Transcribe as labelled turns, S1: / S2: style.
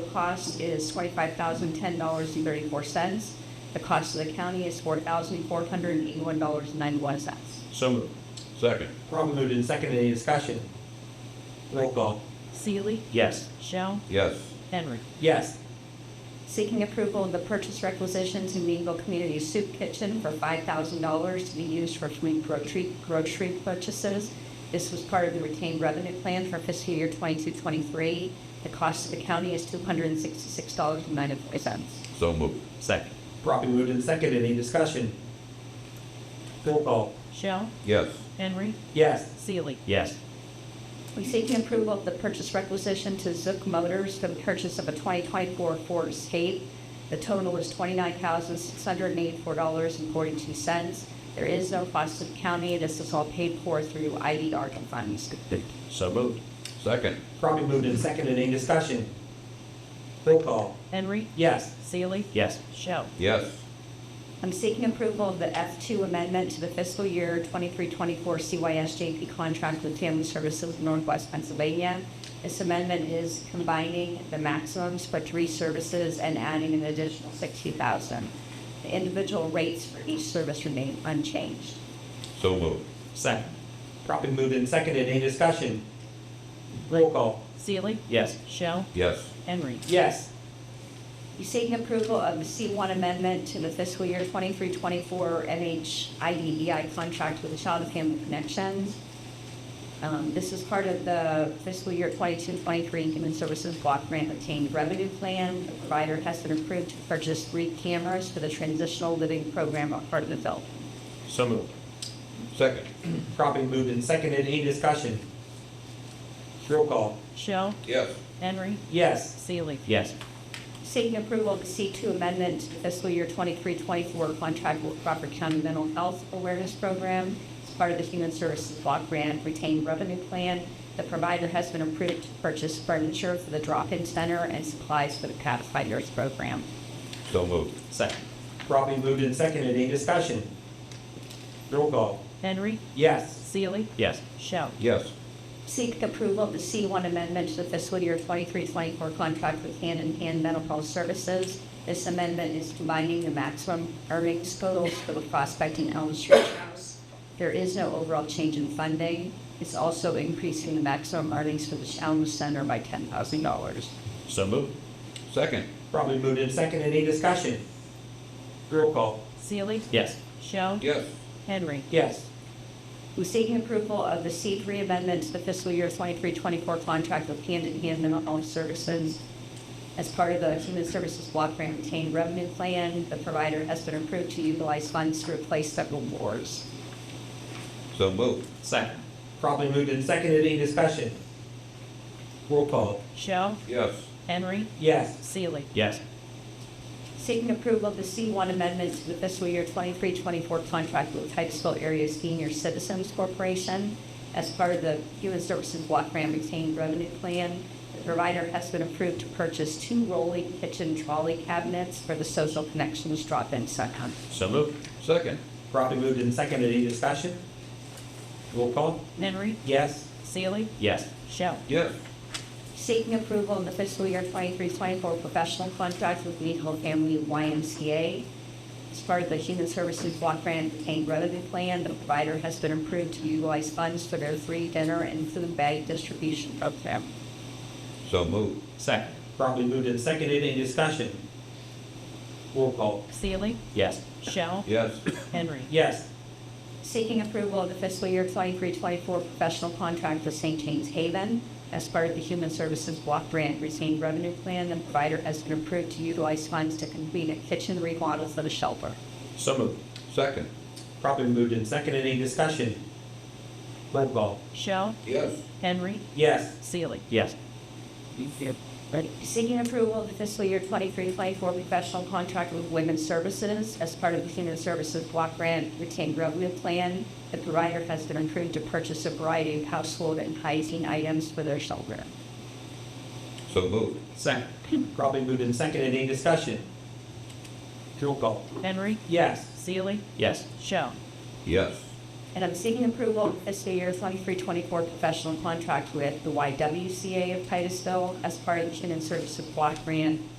S1: The cost is twenty-five thousand, ten dollars and thirty-four cents. The cost of the county is four thousand, four hundred and eighty-one dollars and ninety-one cents.
S2: So moved.
S3: Second.
S4: Probably moved in second, any discussion? Roll call.
S5: Seely,
S2: Yes.
S5: Shell,
S3: Yes.
S5: Henry.
S4: Yes.
S1: Seeking approval of the purchase requisition to Meadville Community Soup Kitchen for five thousand dollars to be used for community grocery, grocery purchases. This was part of the retained revenue plan for fiscal year twenty-two, twenty-three. The cost of the county is two hundred and sixty-six dollars and ninety-four cents.
S3: So moved.
S2: Second.
S4: Probably moved in second, any discussion? Roll call.
S5: Shell,
S3: Yes.
S5: Henry,
S4: Yes.
S5: Seely.
S2: Yes.
S1: We seek approval of the purchase requisition to Zook Motors for the purchase of a 2024 Ford Escape. The total is $29,684.42. There is no cost to the county. This is all paid for through IDR funds.
S2: So moved.
S3: Second.
S4: Probably moved in second, any discussion? Roll call.
S5: Henry,
S4: Yes.
S5: Seely,
S2: Yes.
S5: Shell.
S3: Yes.
S1: I'm seeking approval of the F2 amendment to the fiscal year 23-24 CYS JP contract with Family Services of Northwest Pennsylvania. This amendment is combining the maximums for three services and adding an additional 60000 The individual rates for each service remain unchanged.
S3: So moved.
S4: Second. Probably moved in second, any discussion? Roll call.
S5: Seely,
S2: Yes.
S5: Shell,
S3: Yes.
S5: Henry.
S4: Yes.
S1: You seeking approval of the C1 amendment to the fiscal year 23-24 NHIDEI E contract with the Child and Family Connections. Um, This is part of the fiscal year 22-23 Human Services Block Grant Obtained Revenue Plan. The provider has been approved to purchase three cameras for the Transitional Living Program at Hartmanville.
S2: So moved.
S3: Second.
S4: Probably moved in second, any discussion? Roll call.
S5: Shell,
S3: Yes.
S5: Henry,
S4: Yes.
S5: Seely.
S2: Yes.
S1: Seeking approval of the C2 amendment to fiscal year 23-24 contract with Crawford County Mental Health Awareness Program. It's part of the Human Services Block Grant Retained Revenue Plan. The provider has been approved to purchase furniture for the drop-in center and supplies for the codified nurse program.
S3: So moved.
S2: Second.
S4: Probably moved in second, any discussion? Roll call.
S5: Henry,
S4: Yes.
S5: Seely,
S2: Yes.
S5: Shell.
S3: Yes.
S1: Seek approval of the C1 amendment to the fiscal year 23-24 contract with Hand in Hand Mental Health Services. This amendment is combining the maximum earnings totals for the prospecting Elm Street House. There is no overall change in funding. It's also increasing the maximum earnings for the Elm Center by $10,000.
S2: So moved.
S3: Second.
S4: Probably moved in second, any discussion? Roll call.
S5: Seely,
S2: Yes.
S5: Shell,
S3: Yes.
S5: Henry.
S4: Yes.
S1: Who's seeking approval of the C3 amendment to the fiscal year 23-24 contract with Hand in Hand Mental Health Services as part of the Human Services Block Grant Retained Revenue Plan. The provider has been approved to utilize funds to replace several wards.
S3: So moved.
S2: Second.
S4: Probably moved in second, any discussion? Roll call.
S5: Shell,
S3: Yes.
S5: Henry,
S4: Yes.
S5: Seely.
S2: Yes.
S1: Seeking approval of the C1 amendment to the fiscal year 23-24 contract with Titusville Area Senior Citizens Corporation as part of the Human Services Block Grant Retained Revenue Plan. The provider has been approved to purchase two rolling kitchen trolley cabinets for the Social Connections Drop-In Center.
S2: So moved.
S3: Second.
S4: Probably moved in second, any discussion? Roll call.
S5: Henry,
S4: Yes.
S5: Seely,
S2: Yes.
S5: Shell.
S3: Yes.
S1: Seeking approval of the fiscal year 23-24 professional contract with Meadville Family YMCA. As part of the Human Services Block Grant Retained Revenue Plan, the provider has been approved to utilize funds for their free dinner and food bag distribution program.
S3: So moved.
S2: Second.
S4: Probably moved in second, any discussion? Roll call.
S5: Seely,
S2: Yes.
S5: Shell,
S3: Yes.
S5: Henry.
S4: Yes.
S1: Seeking approval of the fiscal year 23-24 professional contract with St. James Haven. As part of the Human Services Block Grant Retained Revenue Plan, the provider has been approved to utilize funds to complete a kitchen remodel for the shelter.
S2: So moved.
S3: Second.
S4: Probably moved in second, any discussion? Roll call.
S5: Shell,
S3: Yes.
S5: Henry,
S4: Yes.
S5: Seely.
S2: Yes.
S1: Seeking approval of the fiscal year 23-24 professional contract with Women's Services as part of the Human Services Block Grant Retained Revenue Plan. The provider has been approved to purchase a variety of household and hygiene items for their children.
S3: So moved.
S2: Second.
S4: Probably moved in second, any discussion? Roll call.
S5: Henry,
S4: Yes.
S5: Seely,
S2: Yes.
S5: Shell.
S3: Yes.
S1: And I'm seeking approval of fiscal year 2324 professional contract with the YWCA of Titusville as part of the Human Service Block Grant with